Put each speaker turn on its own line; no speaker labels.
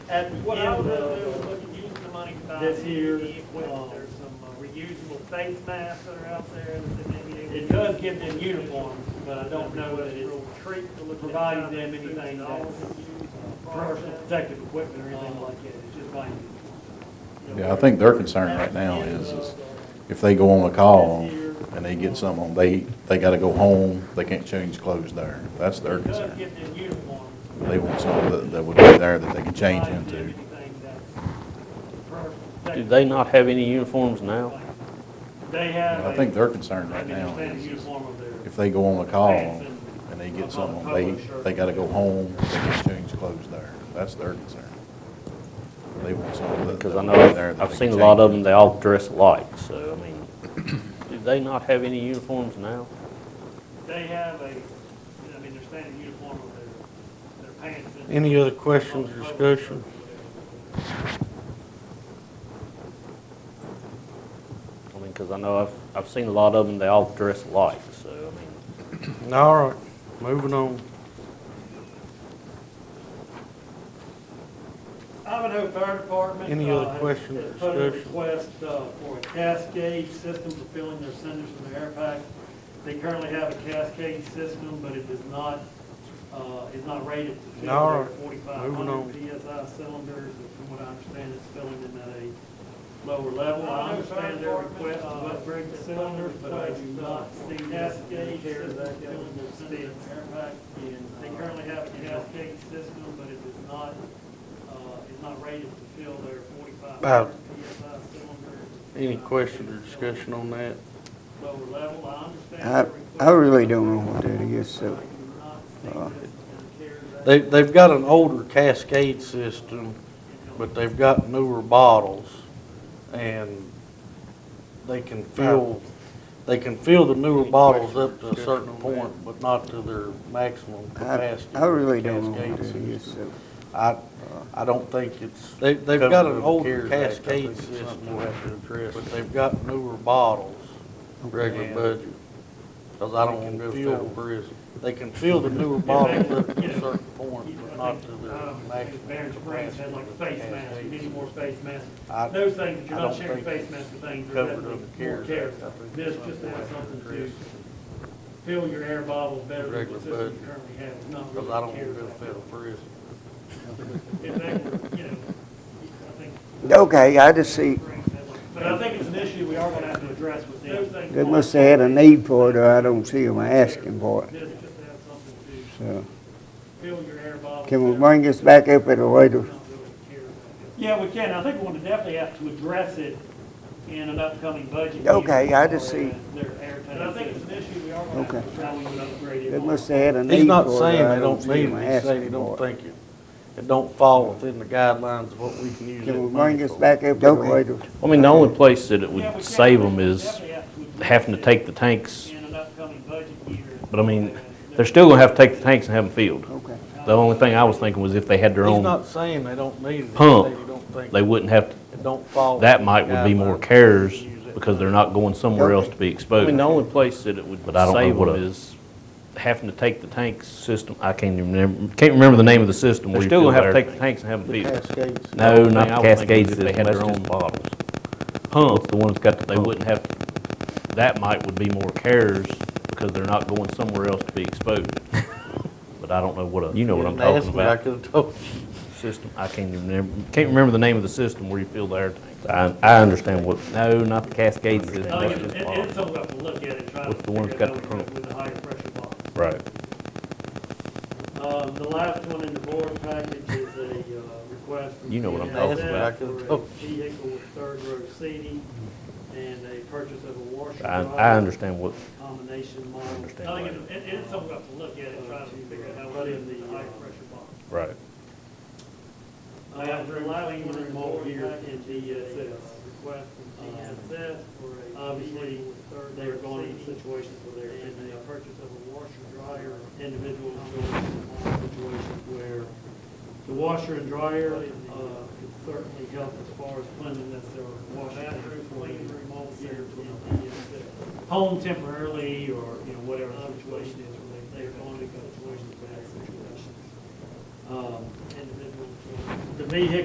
at the
What
end
I would rather do is
of uh,
look at using the money to buy.
this year's,
PPE equipment.
um,
There's some uh, reusable face masks that are out there that they may be.
It does give them uniforms, but I don't know that it's
Treat to look at.
providing
how
them
many
anything
suits and
that's
all that you use as far as
personal
that.
protective equipment or anything like that, it's just buying. you know,
Yeah, I think their concern right now is, is if they go on a call and they get something, on, they, they gotta go home, they can't change clothes there. That's their
It does
concern.
give them uniforms.
They want something that, that would be there that they can change
Provides them
into.
anything that's personal
Do
protective.
they not have any uniforms now?
They have.
I
a-
think their concern
I
right
mean,
now
they have a
is, is
uniform of their-
if they go on a call and they get something, on, they, they gotta go home, they can't change clothes there. That's their concern. They want something that.
Because I
that
know,
would be there
I've
that
I've
they
seen a
can
lot
change
of them, they all dress alike, so, I mean, do they not have any uniforms now?
They have a, I mean, their standard uniform of their, their pants. and-
Any other questions or discussion?
I mean, because I know I've, I've seen a lot of them, they all dress alike, so, I mean,
All right, moving on.
Ivanhoe Fire Department.
Any other
uh, has-
questions
has
or
Put in a
discussion?
request uh, for a cascade system for filling their cinders from the air pack. They currently have a cascade system, but it does not, uh, is not rated to fill
No,
their forty-five
moving on.
hundred PSI cylinders. And From what I understand, it's filling them at a lower level. I understand their request to upgrade the cylinders, but I do not see cascade system filling their cinders from the air pack. They currently have a cascade system, but it does not uh, is not rated to fill their 45
Uh,
PSI cylinder.
Any questions or discussion on that?
Lower level, I understand.
I-
their
I really
request,
don't know what that is,
but I
so,
do not think
uh,
this can carry that.
They, they've got an older Cascade system, but they've got newer bottles, and they can fill, they can fill the newer bottles up to a certain point, but not to their maximum
I,
capacity.
I really don't know
Cascade
what that
system.
is, so.
I, I don't think it's. They,
they've
they've
got
got
an
an
old
older
Cascade
Cascade
system
system,
we'll have to address.
but they've got newer bottles. Regular budget, cause I don't wanna go federal prison. They can fill the newer bottles up to a certain point, but
I
not
think,
to their
um, Barron's
maximum
Springs had
capacity.
like face masks, you need more face masks.
I-
Those things, that you're
I
not
don't
sharing
think
face
it's
masks with things, you're
covered
definitely
under the
more
CARES
cares.
Act. I think
This
it's
just
something
has
we have to
something to
address.
fill your air bottles better than the
Regular
system you
budget.
currently have, it's not
Cause I don't
really
wanna
cares.
go federal prison.
If they were, you know, I think
Okay, I just see,
But I think it's an issue we are gonna have to address with them.
they must have had a need for it, or I don't see them asking for it,
This just has something to
so.
fill your air bottles.
Can we bring this back up at a later?
Yeah, we can. I think we're gonna definitely have to address it in an upcoming budget.
Okay, I
meeting
just
or
see.
Their air tank. But I think it's an issue we are gonna have to
Okay.
address how we would upgrade it.
They must have had a
He's
need
not
for it,
saying
or I
they
don't
don't
see
need
them
it, he's saying he
asking
don't
for it.
think it, it don't fall within the guidelines of what we can use that
Can we
money
bring this
for.
back up at a later?
I mean, the only place that it
Yeah, we
would
can.
save them is
Definitely have address
having to
it
take the tanks,
In an upcoming budget year.
but I mean, they're still gonna have to take the tanks and have them filled.
Okay.
The only thing I was thinking was if they had their
He's
own,
not saying they don't need it, he's
Pump.
saying he don't think,
they wouldn't have, to
it don't fall.
that
within
might
the
would be more
guidelines.
cares
Use it.
because they're not going somewhere else to be exposed. I mean, the only place that it would save them is having to take the tanks system, I can't even remember, can't remember the name of the system. They're still gonna have to take the tanks and have them filled.
Cascades.
No, not the Cascade system, they had their own bottles. Pump, the ones got, they wouldn't have, that might would be more cares because they're not going somewhere else to be exposed. But I don't know what a. You know what I'm
Didn't ask
talking
me, I
about.
could've told you.
System, I can't even remember, can't remember the name of the system where you fill the air tanks. I, I understand what. No, not the Cascade system.
I think Oh, it- it- It's something we have to look at and try to
With the ones
figure out
got the
with
trunk.
with the higher pressure box.
Right.
Uh, The last one in the board package is a uh, request. from
You know what I'm
PNSF
talking
for
about.
a
Oh.
Vehicle with third row seating and a purchase of a washer.
I, I
dryer,
understand what,
Combination model.
understand
I
why.
think it- it- it's something we have to look at and try to figure out how to put in the higher pressure box.
right.
I have the last one in the board package is a uh, request from PNSF. Obviously, they were going into situations where they're in the purchase of a washer dryer, individuals going into situations where the washer and dryer, uh, could certainly help as far as cleanliness or wash bathroom, clean room all year. uh, Home temporarily or, you know, whatever the situation is, where they- they're going into situations, bad situations. Um, individuals. The vehicle